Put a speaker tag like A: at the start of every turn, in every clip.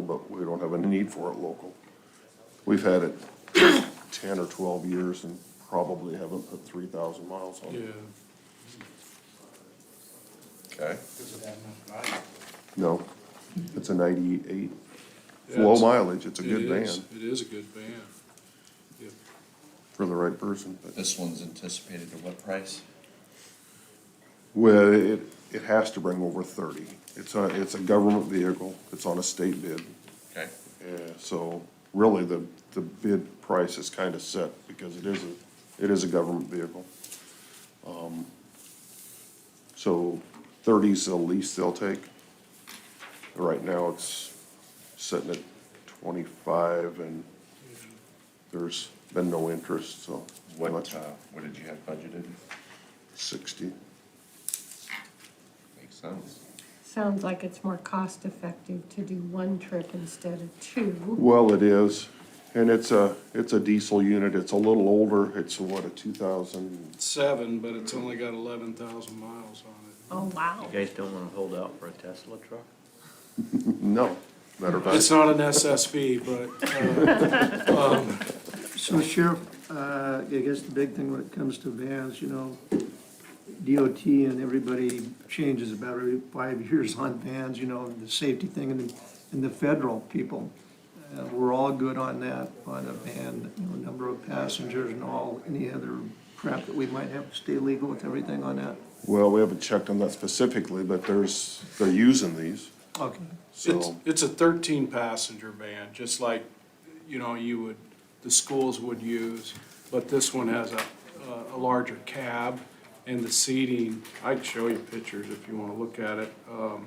A: but we don't have any need for it local. We've had it ten or twelve years and probably haven't put three thousand miles on
B: Yeah,
A: it. Okay.
B: because of that much value.
A: No, it's a ninety-eight, It's
B: Yeah,
A: low
B: it's-
A: mileage, it's a
B: It
A: good
B: is,
A: van
B: It is a good van. Yep.
A: for the right person, but.
C: This one's anticipated at what price?
A: Well, it, it has to bring over thirty. It's a, it's a government vehicle, it's on a state bid.
C: Okay,
A: Yeah, so really, the, the bid price is kind of set because it is a, it is a government vehicle. Um, So thirty's the least they'll take. Right now, it's sitting at twenty-five and there's been no interest, so.
C: what,
A: Much.
C: uh, what did you have budgeted?
A: Sixty.
C: Makes sense.
D: Sounds like it's more cost effective to do one trip instead of two.
A: Well, it is, and it's a, it's a diesel unit, it's a little older, it's what, a two thousand?
B: Seven, but it's only got eleven thousand miles on
D: Oh, wow.
E: You guys don't wanna hold out for a Tesla truck?
A: No, matter of
B: it. It's
A: fact,
B: not an SSV, but, uh, um,
F: So Sheriff, uh, I guess the big thing when it comes to vans, you know, DOT and everybody changes about every five years on vans, you know, the safety thing and the, and the federal people. Uh, We're all good on that, on the van, you know, number of passengers and all, any other crap that we might have to stay legal with everything on that.
A: well, we haven't checked on that specifically, but there's, they're using these,
F: Okay.
B: it's,
A: so,
B: it's a thirteen passenger van, just like, you know, you would, the schools would use. But this one has a, a- a larger cab and the seating, I can show you pictures if you wanna look at it. Um,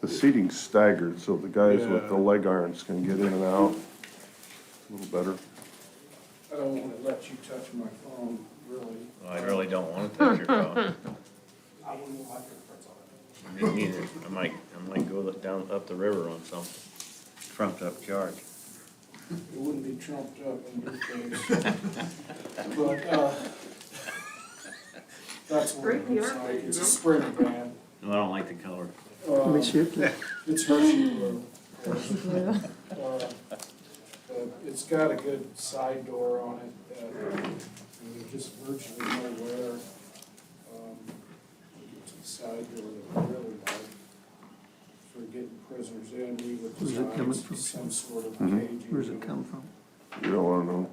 A: the seating's staggered, so the guys with the
B: Yeah.
A: leg irons can get in and out a little better.
B: I don't wanna let you touch my phone, really.
E: I really don't wanna touch your phone.
B: I wouldn't like it if it's on.
E: Me neither. I might, I might go look down, up the river on something. Trumped up charge.
B: It wouldn't be trumped up in this case. But, uh, that's what it looks like. It's a spring van.
E: No, I don't like the color.
F: Let me see if, the-
B: It's Hershey blue. Uh, but It's got a good side door on it that, uh, there's just virtually no wear. Um, It's a side door that I really like for getting prisoners in. We would
F: Where's it
B: design
F: coming from? Mm-hmm.
B: some sort of caging.
F: where's it come from?
A: You don't wanna know,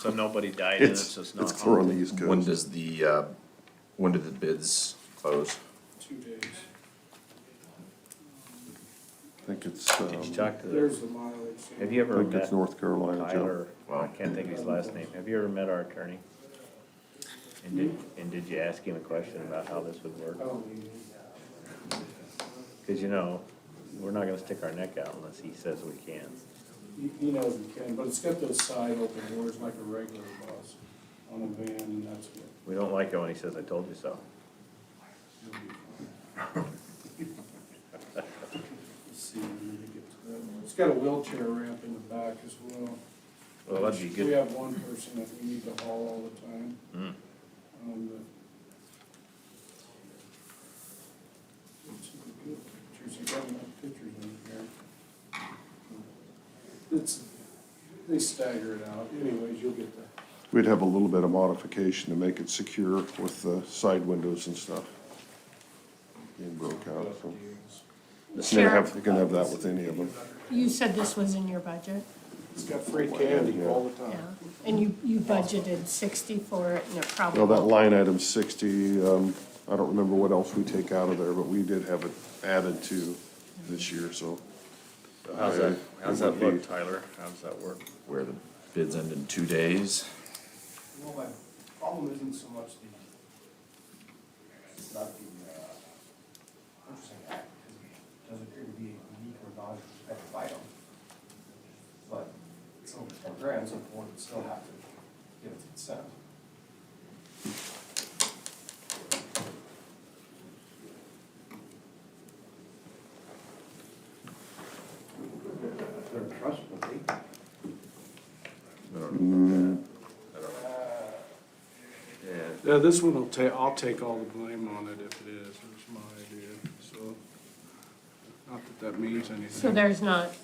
E: So nobody died in it,
A: it's,
E: so it's not.
A: it's clear on the
E: haunted.
A: East
C: When
A: Coast.
C: does the, uh, when do the bids close?
B: Two days.
A: I think it's,
E: Did you
A: um,
E: talk to the,
B: There's the mileage.
E: have you
A: I
E: ever
A: think
E: met
A: it's North Carolina, Joe.
E: Tyler? Well, I can't think of his last name. Have you ever met our attorney? And did, and did you ask him a question about how this would work?
B: I don't need it.
E: Cause you know, we're not gonna stick our neck out unless he says we can.
B: He, he knows we can, but it's got those side open doors like a regular bus on a van, and that's what.
E: We don't like it when he says, I told you so.
B: Let's See, when we get to that one. It's got a wheelchair ramp in the back as well.
E: Well, that'd be
B: which
E: good.
B: We have one person that we need to haul all the time.
E: Mm.
B: Um, but- Let's see the good Pictures, I got enough pictures in here. It's, they stagger it out. Anyways, you'll get the
A: We'd have a little bit of modification to make it secure with the side windows and stuff. Being broke out, so. You can have, you can have that with any of them.
D: You said this was in your budget,
B: It's got free candy all the
D: yeah?
B: time.
D: And you, you budgeted sixty for it and it probably.
A: Well, that line item sixty, um, I don't remember what else we take out of there, but we did have it added to this year, so.
E: So How's
A: I-
E: that,
A: it
E: how's that
A: would be-
E: look, Tyler? How's that work?
C: Where the bids end in two days?
G: Well, my problem isn't so much the, it's not the, uh, purchasing act, because it does appear to be a unique or non-competitive item. But it's over four grand, so the board would still have to give its consent. They're trustworthy.
B: Yeah, this one will ta, I'll take all the blame on it if it is, it was my idea, so. Not that
H: that means anything.
D: So there's not